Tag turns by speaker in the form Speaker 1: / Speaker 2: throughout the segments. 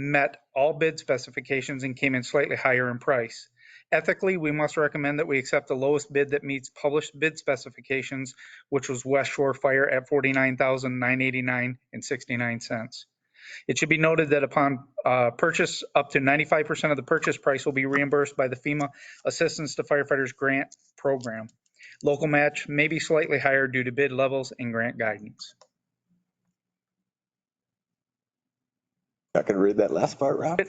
Speaker 1: met all bid specifications and came in slightly higher in price. Ethically, we must recommend that we accept the lowest bid that meets published bid specifications, which was West Shore Fire at $49,989 and 69 cents. It should be noted that upon uh, purchase, up to 95% of the purchase price will be reimbursed by the FEMA Assistance to Firefighters Grant Program. Local match may be slightly higher due to bid levels and grant guidance.
Speaker 2: I can read that last part, Rob.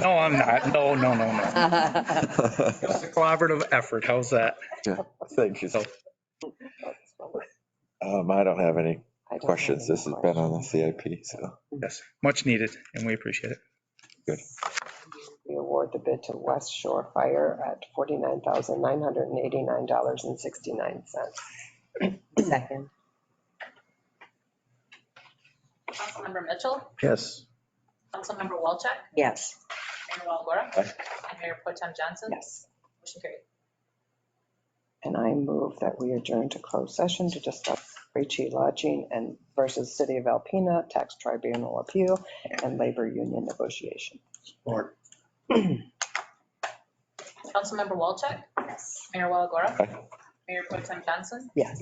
Speaker 1: No, I'm not. No, no, no, no.
Speaker 3: That's
Speaker 2: I
Speaker 1: It's a collaborative effort. How's that?
Speaker 2: think it's- um, I don't have any questions. This has been on the CIP, so.
Speaker 1: Yes, much needed, and we appreciate it.
Speaker 3: We award the bid to West Shore Fire at $49,989.69. Second.
Speaker 4: Councilmember Mitchell,
Speaker 5: Yes.
Speaker 4: Councilmember Walchek,
Speaker 3: Yes.
Speaker 4: Mayor Walagora,
Speaker 2: Aye.
Speaker 4: and Mayor Potem Johnson.
Speaker 3: Yes.
Speaker 4: Motion carried.
Speaker 3: And I move that we adjourn to closed session to discuss Ricci Lodging and versus City of Alpena, Tax Tribunal Appeal, and Labor Union Negotiation.
Speaker 5: Or
Speaker 4: Councilmember Walchek. Yes. Mayor Walagora.
Speaker 2: Aye.
Speaker 4: Mayor Potem Johnson,
Speaker 3: Yes.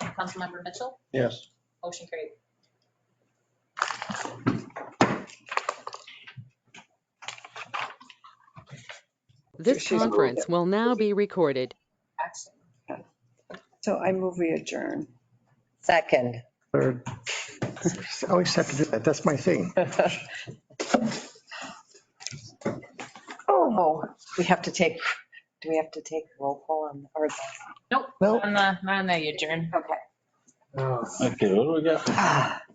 Speaker 4: Councilmember Mitchell,
Speaker 5: Yes.
Speaker 4: motion carried.
Speaker 6: This
Speaker 3: She's moved
Speaker 6: conference
Speaker 3: it.
Speaker 6: will now be recorded.
Speaker 4: Action.
Speaker 3: So I move we adjourn.
Speaker 7: Second.
Speaker 5: third. I always have to do that. That's my thing.
Speaker 7: Oh, we have to take, do we have to take roll call on, or?
Speaker 4: Nope.
Speaker 5: Nope.
Speaker 4: On the, on the adjourn.
Speaker 7: Okay.
Speaker 8: Okay, what do we got?
Speaker 7: Ah,